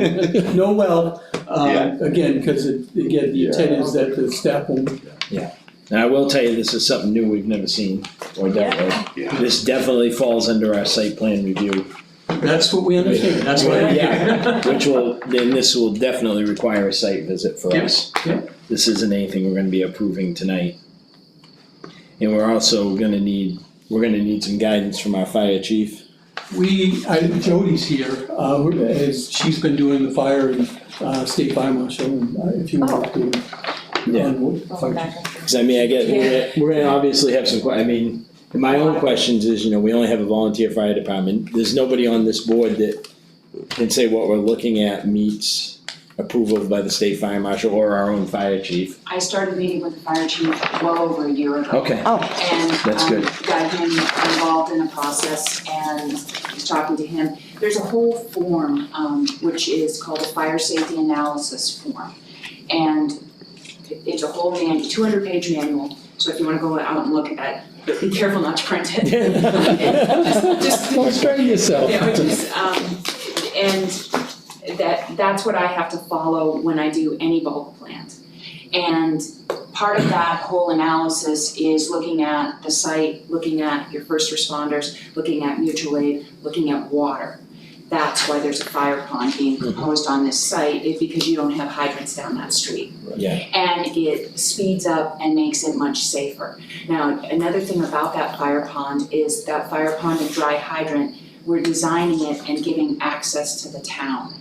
No well, uh, Yeah. again, because it, again, the intent Yeah. is that the staff will, And I will tell you, this is something new we've never seen or dealt with. Yeah. This definitely falls under our site plan review, that's what we understand, that's why. we're here. which will, then this will definitely require a site visit for us. Yeah, This isn't anything we're gonna be approving tonight. And we're also gonna need, we're gonna need some guidance from our fire chief. We, I, Jody's here, uh, we're- as she's been doing the fire and, uh, state fire marshal, and uh, if you want to. um, Yeah. on what- Going back and Cause I mean, I get, we're, we're gonna obviously have some, que- I mean, my own questions is, you know, we only have a volunteer fire department, there's nobody on this board that can say what we're looking at meets approval by the state fire marshal or our own fire chief. I started meeting with the fire chief well over a year ago. Okay. And That's um, good. got him involved in the process and was talking to him. There's a whole form, um, which is called a fire safety analysis form. And it- it's a whole man, two hundred page manual, so if you wanna go out and look at it, but be careful not to print it. Just- Don't strain yourself. Yeah, which is, um, and that, that's what I have to follow when I do any bulk plant. And part of that whole analysis is looking at the site, looking at your first responders, looking at mutual aid, looking at water. That's why there's a fire pond being proposed on this site, is because you don't have hydrants down that street Yeah, and it speeds up and makes it much safer. Now, another thing about that fire pond is that fire pond and dry hydrant, we're designing it and giving access to the town.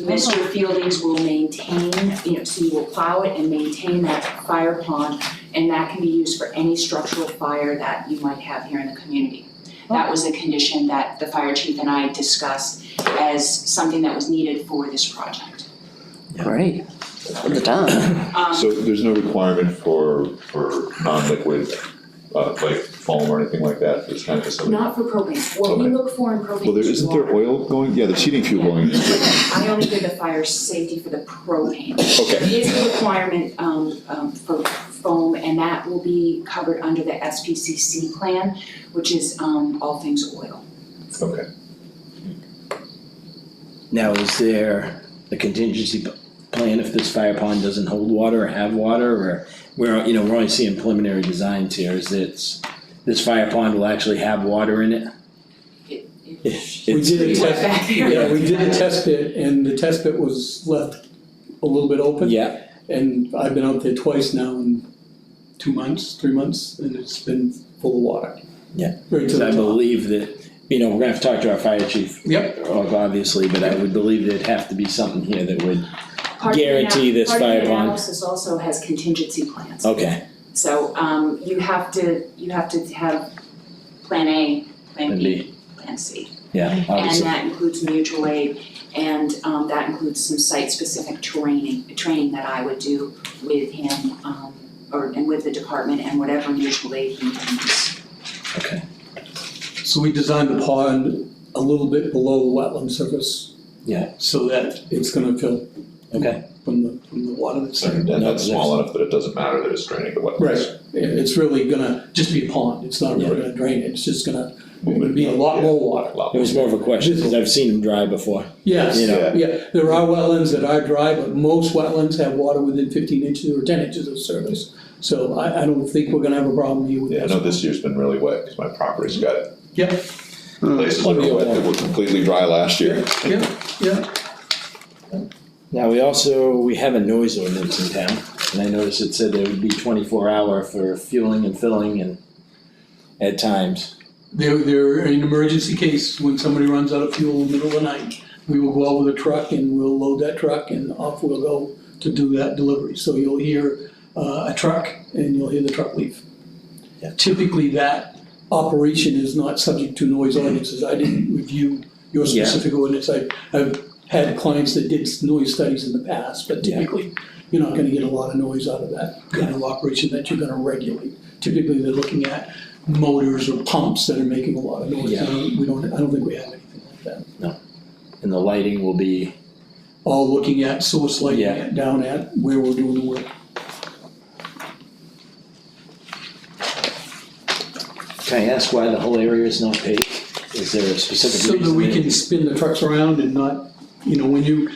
Mr. Fieldings will maintain, you know, so he will plow it and maintain that fire pond, and that can be used for any structural fire that you might have here in the community. That was a condition that the fire chief and I discussed as something that was needed for this project. Great, put it down. Um, So there's no requirement for, for non-liquid, uh, like foam or anything like that, it's kind of just something. Not for propane, what we Okay. look for in propane Well, there, is isn't there water. oil going, yeah, there's heating fuel going in. I only did the fire safety for the propane. It Okay, is a requirement, um, um, for foam, and that will be covered under the SPCC plan, which is, um, all things oil. okay. now is there a contingency p- plan if this fire pond doesn't hold water or have water or we're, you know, we're only seeing preliminary designs here, is it's, this fire pond will actually have water in it? It- it- We It's- did a We went test, back there. yeah, we did a test pit, and the test pit was left a little bit open. Yeah, And I've been out there twice now in two months, three months, and it's been full of water. Yeah. Right to because the I top. believe that, you know, we're gonna have to talk to our fire chief, Yep, obviously, but I would believe there'd have to be something here that would, Part of the ana- Guarantee this fire Part of the bond. analysis also has contingency plans. okay, So, um, you have to, you have to have plan A, plan and B, be, plan C. yeah, And uh, obviously, that includes mutual aid, and um that includes some site-specific training, training that I would do with him, um, or and with the department and whatever mutual aid he needs. okay. so we designed the pond a little bit below the wetland surface. Yeah. So that it's gonna fill. Okay. From the, from the water that's So there. And that's there's- small enough that it doesn't matter that it's draining the wetlands. Right, It- it's really gonna just be a pond, it's not really gonna drain it, it's just gonna, it'd be a lot more water. Lot It was more of a question, because I've seen them dry before. Yes, You know. yeah, there are wetlands that are dry, but most wetlands have water within fifteen inches or ten inches of surface. So I, I don't think we're gonna have a problem here with Yeah, I this. know this year's been really wet, cause my property's got Oh. Yep, places that are wet that were completely dry last year. yep, yep, Now, we also, we have a noise ordinance in town, and I noticed it said there would be twenty-four hour for fueling and filling and at times. there, there, in an emergency case, when somebody runs out of fuel in the middle of the night, we will go out with a truck and we'll load that truck and off we'll go to do that delivery, so you'll hear, uh, a truck and you'll hear the truck leave. Yeah. Typically, that operation is not subject to noise ordinances, I didn't review your Yeah. specific ordinance, I, I've had clients that did noise studies in the past, but Yeah. typically, you're not gonna get a lot of noise out of that kind of operation that you're gonna regulate. Typically, they're looking at motors or pumps that are making a lot of noise. Yeah. I don't- We don't, I don't think we have anything like that. And the lighting will be, All looking at source lighting Yeah. at- down at where we're doing the work. can I ask why the whole area is not paved? Is there a specific So reason? that we that- can spin the trucks around and not You know, when you,